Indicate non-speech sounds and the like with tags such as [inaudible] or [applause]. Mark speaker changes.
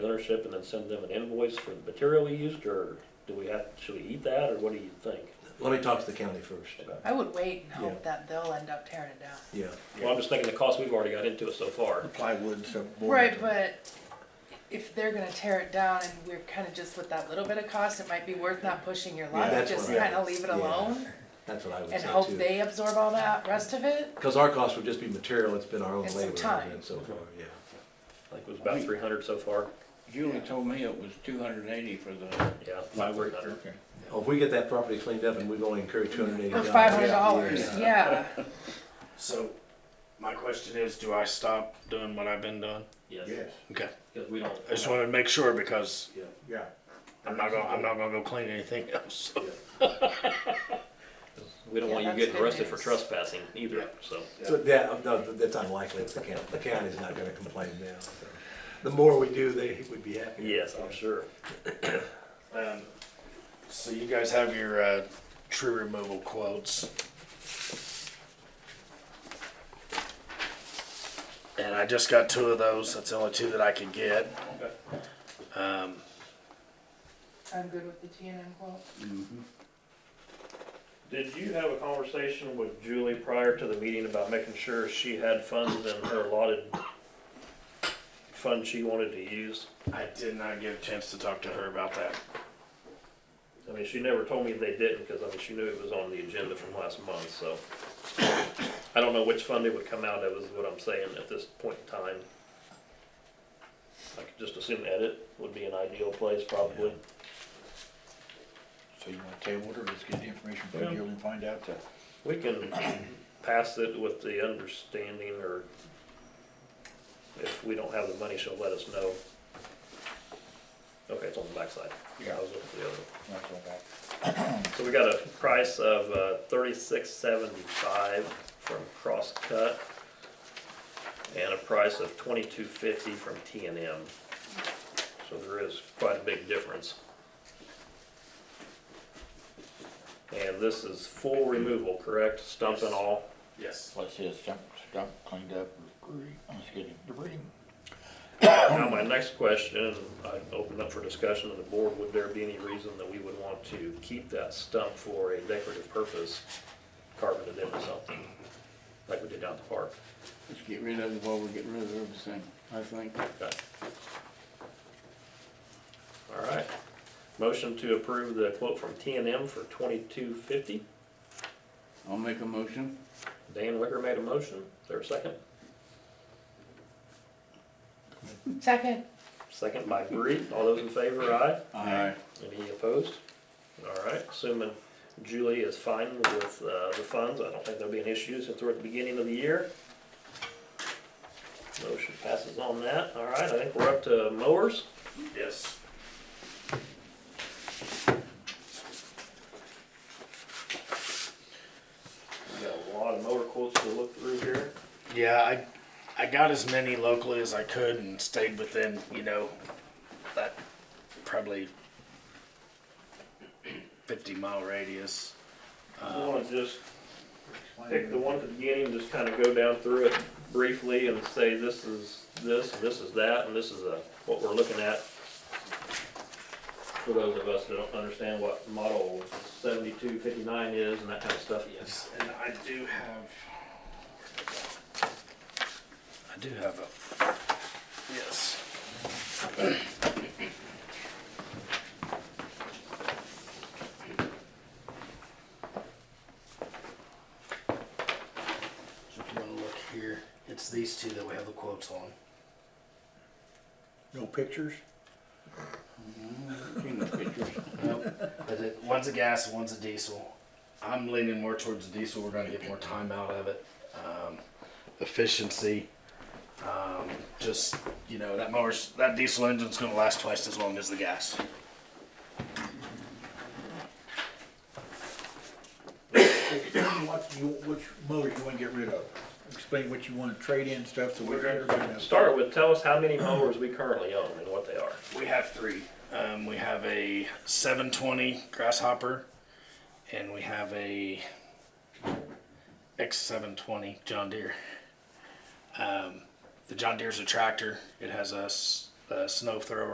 Speaker 1: ownership and then send them an invoice for the material we used, or do we have, should we eat that, or what do you think?
Speaker 2: Let me talk to the county first.
Speaker 3: I would wait and
Speaker 2: Yeah.
Speaker 3: hope that they'll end up tearing it down.
Speaker 2: Yeah.
Speaker 1: Well, I'm just thinking the cost we've already got into it so far.
Speaker 4: plywood and stuff. board
Speaker 3: Right,
Speaker 4: and-
Speaker 3: but if they're gonna tear it down and we're kinda just with that little bit of cost, it might be worth not pushing your luck,
Speaker 2: that's
Speaker 3: just
Speaker 2: what I-
Speaker 3: kinda leave it
Speaker 2: yeah,
Speaker 3: alone
Speaker 2: That's what I would say
Speaker 3: and
Speaker 2: too.
Speaker 3: hope they absorb all that rest of it.
Speaker 2: Because our cost would just be material, it's been our own
Speaker 3: And some
Speaker 2: labor
Speaker 3: time.
Speaker 2: and so far, yeah.
Speaker 1: I think it was about three hundred so far,
Speaker 5: Julie told me it was two hundred and eighty for the,
Speaker 1: yeah, about
Speaker 4: Plywood,
Speaker 1: three hundred.
Speaker 4: okay.
Speaker 2: Oh, If we get that property cleaned up and we've only incurred two hundred and eighty
Speaker 3: For
Speaker 2: dollars.
Speaker 3: five hundred dollars,
Speaker 4: Yeah.
Speaker 3: yeah.
Speaker 6: So, my question is, do I stop doing what I've been doing?
Speaker 1: Yes,
Speaker 4: Yes,
Speaker 6: Okay.
Speaker 1: because we don't.
Speaker 6: I just wanted to make sure because
Speaker 4: yeah.
Speaker 6: I'm not gonna, I'm not gonna go clean anything [laughs] else.
Speaker 1: We don't
Speaker 3: Yeah,
Speaker 1: want you
Speaker 3: that's
Speaker 1: getting
Speaker 3: good
Speaker 1: arrested for
Speaker 3: news.
Speaker 1: trespassing either, so.
Speaker 2: So that, no, that's unlikely, if the county, the county's not gonna complain now, so. The more we do, they would be happy.
Speaker 1: Yes, I'm sure.
Speaker 6: Um, so you guys have your uh, tree removal quotes. And I just got two of those. That's the only two that I could get. Um,
Speaker 3: I'm good with the T and M quote.
Speaker 1: Did you have a conversation with Julie prior to the meeting about making sure she had funds in her allotted fund she wanted to use?
Speaker 6: I did not get a chance to talk to her about that.
Speaker 1: I mean, she never told me they didn't, because I mean, she knew it was on the agenda from last month, so. I don't know which fund it would come out of, is what I'm saying at this point in time. I could just assume edit would be an ideal place, probably.
Speaker 4: So you wanna table it or just get the information from
Speaker 1: Yeah.
Speaker 4: Julie and find out that?
Speaker 1: We can pass it with the understanding, or if we don't have the money, she'll let us know. Okay, it's on the backside. I was looking for the other one.
Speaker 4: Not so bad.
Speaker 1: So we got a price of uh, thirty-six seventy-five from Crosscut and a price of twenty-two fifty from T and M. So there is quite a big difference. And this is full removal, correct? Stump and all?
Speaker 6: Yes.
Speaker 4: Let's see, it's dump, dump cleaned up, debris, excuse me, debris.
Speaker 1: Now, my next question, I open up for discussion of the board, would there be any reason that we would want to keep that stump for a decorative purpose? Carving it into something, like we did down at the park?
Speaker 5: let's get rid of it while we're getting rid of everything, I think.
Speaker 1: Okay. All right. Motion to approve the quote from T and M for twenty-two fifty.
Speaker 5: I'll make a motion.
Speaker 1: Dan Wicker made a motion. Is there a second?
Speaker 3: Second,
Speaker 1: Second by Bree. All those in favor, aye.
Speaker 5: Aye.
Speaker 1: Any opposed? All right, assuming Julie is fine with uh, the funds, I don't think there'll be an issue since we're at the beginning of the year. Motion passes on that. All right, I think we're up to mowers.
Speaker 5: Yes.
Speaker 1: We got a lot of mower quotes to look through here.
Speaker 5: Yeah, I, I got as many locally as I could and stayed within, you know, that probably fifty mile radius.
Speaker 1: You wanna just pick the one at the beginning, just kind of go down through it briefly and say, this is this, and this is that, and this is uh, what we're looking at. For those of us that don't understand what model seventy-two fifty-nine is and that kind of stuff.
Speaker 5: Yes, and I do have. I do have a. Yes. So if you wanna look here, it's these two that we have the quotes on.
Speaker 4: No pictures?
Speaker 5: Nope. But it- one's a gas, one's a diesel. I'm leaning more towards the diesel. We're going to get more time out of it. Um, efficiency. Um, just you know that mower's that diesel engine's going to last twice as long as the gas.
Speaker 4: Explain what you, which motor you wanna get rid of. Explain what you wanna trade in stuff so we can everybody knows.
Speaker 1: Start with, tell us how many mowers we currently own and what they are.
Speaker 5: We have three. Um, we have a 720 grasshopper, and we have a X720 John Deere. Um, the John Deere's a tractor. It has a, s- a snow thrower.